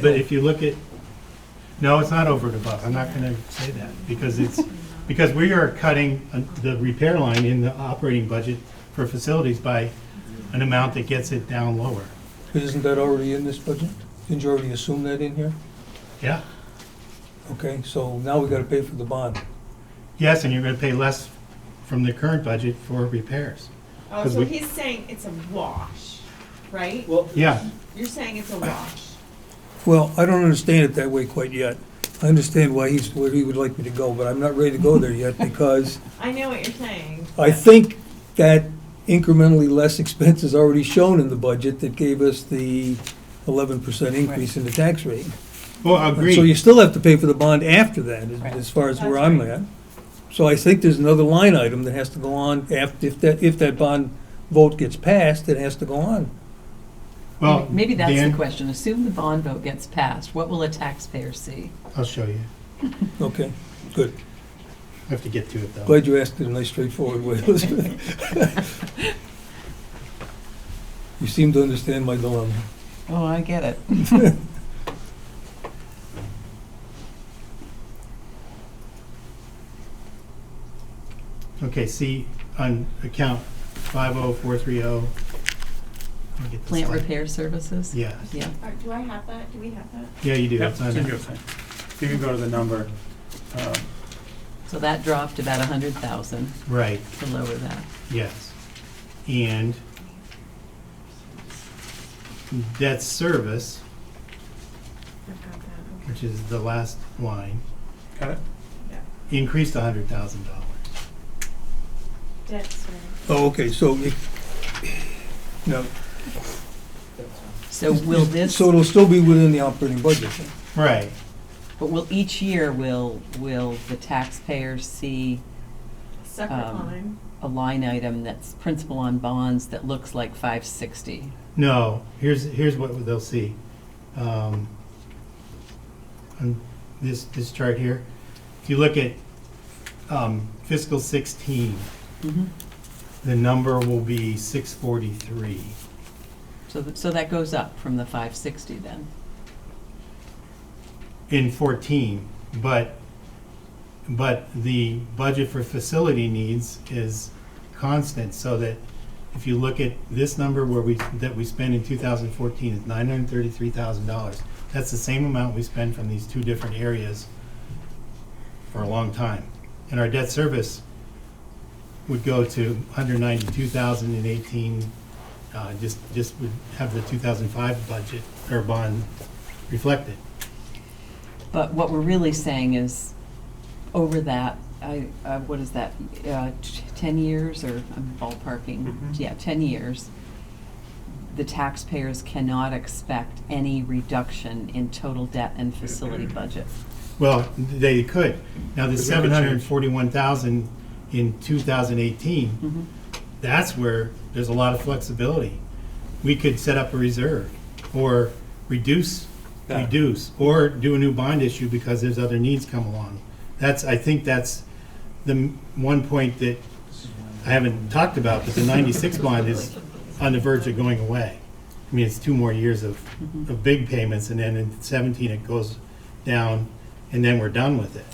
But if you look at, no, it's not over and above, I'm not gonna say that, because it's, because we are cutting uh, the repair line in the operating budget for facilities by an amount that gets it down lower. Isn't that already in this budget? Didn't you already assume that in here? Yeah? Okay, so now we gotta pay for the bond. Yes, and you're gonna pay less from the current budget for repairs. Oh, 'Cause so we- he's saying it's a wash, right? Well, Yeah, You're saying it's a wash. Well, I don't understand it that way quite yet. I understand why he's, where he would like me to go, but I'm not ready to go there yet because I know what you're saying. I think that incrementally less expense is already shown in the budget that gave us the eleven percent increase in the tax rate. well, And So you agreed, still have to pay for the bond after that, as- Right. as far as That's where I'm right. at. So I think there's another line item that has to go on after, if that, if that bond vote gets passed, it has to go on. well. Maybe that's the Oh, Dan, question. Assume the bond vote gets passed, what will a taxpayer see? I'll show you, Okay, good. I have to get to it though. Glad you asked it in a nice straightforward way, Elizabeth. You seem to understand my dilemma. Oh, I get it. Okay, see, on account five oh four three oh. Plant repair services? Yeah, Yeah. All right, Uh, Do I have that? Do we have that? yeah, you do. Yep, It's it's on in there. your thing. You can go to the number. um, So that dropped about a hundred thousand Right, to lower that. yes. And debt service, I've got that, okay. which is the last line, Got it? increased a hundred thousand dollars. Debt service. Oh, okay, so it, no. So will this, So it'll still be within the operating budget. Right, but will each year, will, will the taxpayer see Separate Um, line. a line item that's principal on bonds that looks like five sixty? no, here's, here's what they'll see. Um, On this, this chart here, if you look at um, fiscal sixteen, Mm-hmm. the number will be six forty-three. So, th- so that goes up from the five sixty then? in 14, but, but the budget for facility needs is constant, so that if you look at this number where we, that we spend in 2014 is $933,000. That's the same amount we spend from these two different areas for a long time. And our debt service would go to 192,000 in 18, uh, just, just would have the 2005 budget or bond reflected. But what we're really saying is, over that, I, uh, what is that, uh, t- ten years, or I'm ballparking, Mhm. yeah, ten years, the taxpayers cannot expect any reduction in total debt and facility budget. Well, they could. Now, the Because we could seven change. hundred and forty-one thousand in two thousand eighteen, Hmm. Mhm. that's where there's a lot of flexibility. We could set up a reserve, or reduce, Yeah. reduce, or do a new bond issue because there's other needs come along. That's, I think that's the m- one point that I haven't talked about, but the ninety-six bond is on the verge of going away. I mean, it's two more years of, of big payments, and then in seventeen, it goes down, and then we're done with it.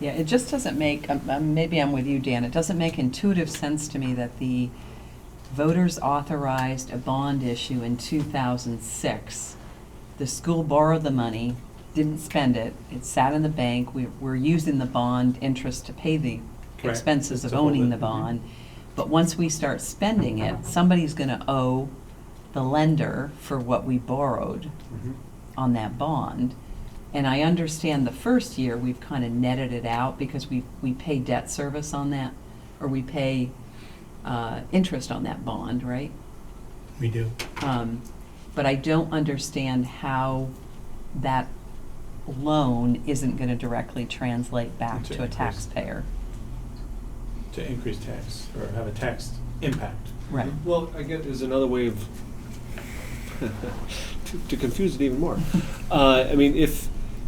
Yeah, it just doesn't make, um, um, maybe I'm with you, Dan, it doesn't make intuitive sense to me that the voters authorized a bond issue in 2006. The school borrowed the money, didn't spend it, it sat in the bank, we, we're using the bond interest to pay the Correct. expenses of To hold owning it, the mhm. bond. But once we start spending it, somebody's gonna owe the lender for what we borrowed Mhm. on that bond. And I understand the first year, we've kind of netted it out because we, we pay debt service on that, or we pay uh, interest on that bond, right? We do. Um, But I don't understand how that loan isn't going to directly translate back Into to a interest. taxpayer. To increase tax or have a tax impact. Right. Well, I guess there's another way of, to- to confuse it even more. Uh, I mean, if,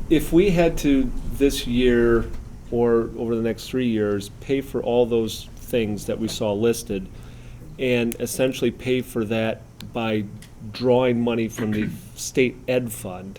if we had to this year or over the next three years, pay for all those things that we saw listed and essentially pay for that by drawing money from the state ed fund,